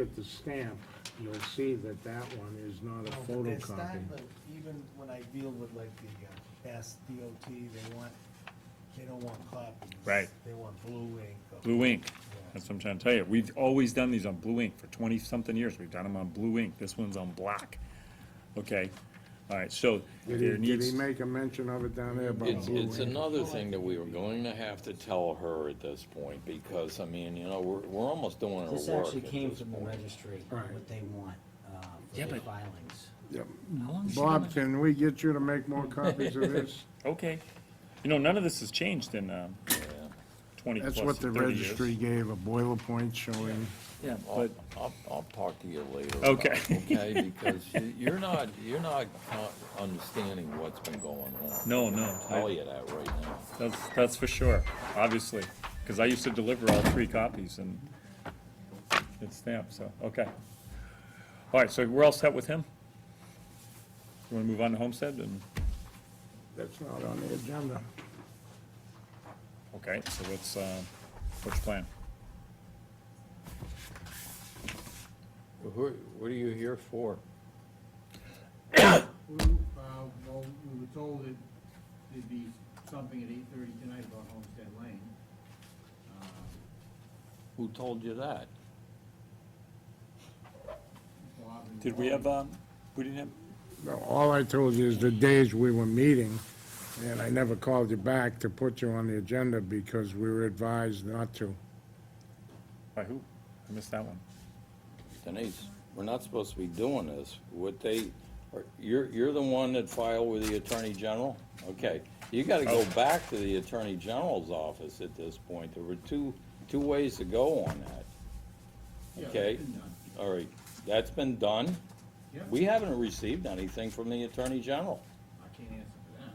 at the stamp, you'll see that that one is not a Oh, but that's photocopy. not the- Even when I deal with like the uh, Mass DOT, they want, they don't want copies. Right. They want blue ink. or- Blue ink, Yeah. that's what I'm trying to tell you, we've always done these on blue ink, for twenty-something years, we've done them on blue ink, this one's on black. Okay, all right, so Did he, there did needs, he make a mention of it down there about It's, blue it's ink? another thing that we were going to have to tell her at this point, because, I mean, you know, we're, we're almost doing her work. This actually at came this from the point. registry, Right. what they want, uh, for Yeah, their but- filings. Yep. How long has she Bob, been- can we get you to make more copies of this? okay, you know, none of this has changed in, um, twenty plus, That's thirty what years. the registry gave, a boiler point showing. Yeah, I'll, but, I'll, I'll talk to you later. about Okay. it, Okay, because you- you're not, you're not con- understanding what's been going on. no, no, I'll Tell I- you that right now. that's, that's for sure, obviously, cause I used to deliver all three copies and it's stamped, so, okay. All right, so we're all set with him? You wanna move on to Homestead and? That's not on the agenda. Okay, so what's, uh, what's your plan? Who, are- what are you here for? Well, uh, well, we were told that there'd be something at eight thirty tonight about Homestead Lane. Uh, Who told you that? Bob and Did we Wally- have, um, we didn't have, No, All I told you is the days we were meeting, and I never called you back to put you on the agenda because we were advised not to. by who? I missed that one. Denise, we're not supposed to be doing this. What they, are- you're, you're the one that filed with the Attorney General? Okay, you gotta go Oh. back to the Attorney General's office at this point. There were two, two ways to go on that. Yeah, that's Okay, been done. all right, that's been done. Yeah. We haven't received anything from the Attorney General. I can't answer for them.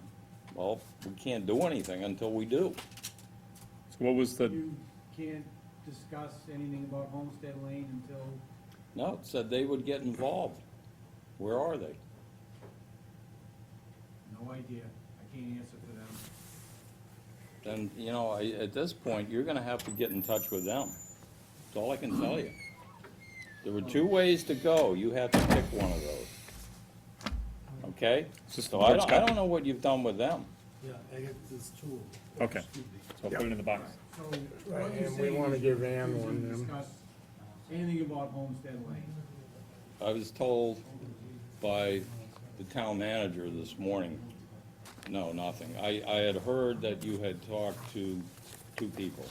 Well, we can't do anything until we do. So what was the, You can't discuss anything about Homestead Lane until, No, it said they would get involved. Where are they? no idea, I can't answer for them. Then, you know, I, at this point, you're gonna have to get in touch with them. That's all I can tell you. There were two ways to go. You have to pick one of those. Okay? It's just the So I board's don't, I copy. don't know what you've done with them. Yeah, I got this tool. okay, so I'll put it in the box. So what you're And we saying wanna is give you Ann can one, then. Discuss anything about Homestead Lane. I was told by the town manager this morning, no, nothing. I, I had heard that you had talked to two people.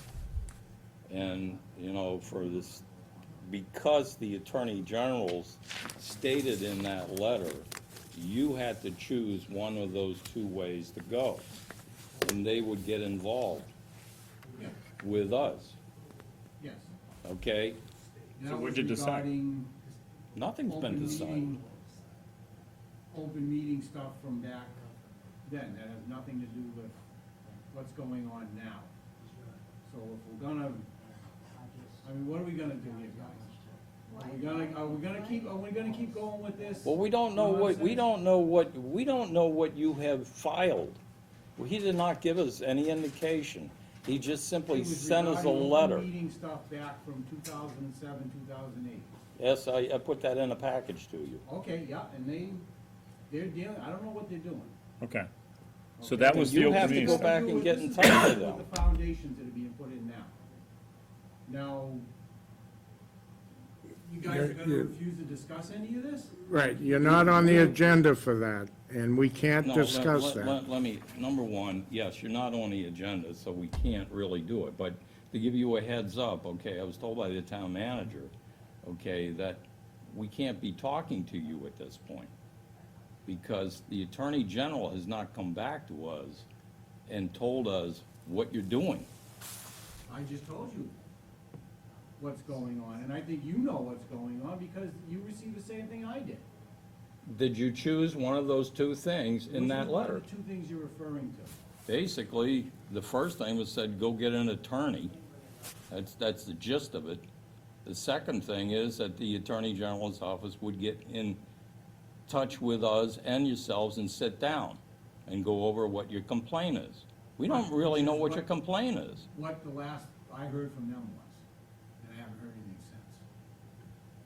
And, you know, for this, because the Attorney General's stated in that letter, you had to choose one of those two ways to go. And they would get involved Yeah, with us, Yes. okay? And So that what'd was you decide? regarding Nothing's been open decided. meeting- Open meeting stuff from back then, that has nothing to do with what's going on now. So if we're gonna, I mean, what are we gonna do here, guys? Are we gonna, are we gonna keep, are we gonna keep going with this? Well, we don't know You what, we I'm saying? don't know what, we don't know what you have filed. Well, He did not give us any indication. He just It simply was sent us a regarding open letter. Meeting stuff back from two thousand and seven, two thousand and eight. Yes, I, I put that in a package to you. Okay, yeah, and they, they're dealing, I don't know what they're doing. Okay, so that was the You open have to meeting go stuff. back and With get this in is touch with them. The foundations that are being put in now. Now, you guys are gonna You're- refuse to discuss any of this? Right, you're not on the agenda for that, and we can't No, let- discuss let- that. Let, let me, number one, yes, you're not on the agenda, so we can't really do it, but to give you a heads up, okay, I was told by the town manager, okay, that we can't be talking to you at this point, because the Attorney General has not come back to us and told us what you're doing. I just told you what's going on, and I think you know what's going on because you received the same thing I did. Did you choose one of those two things in Which that is one of letter? the Two things you're referring to. Basically, the first thing was said, go get an attorney. That's, that's the gist of it. The second thing is that the Attorney General's office would get in touch with us and yourselves and sit down and go over what your complaint is. We don't really know what your complaint is. What the last I heard from them was.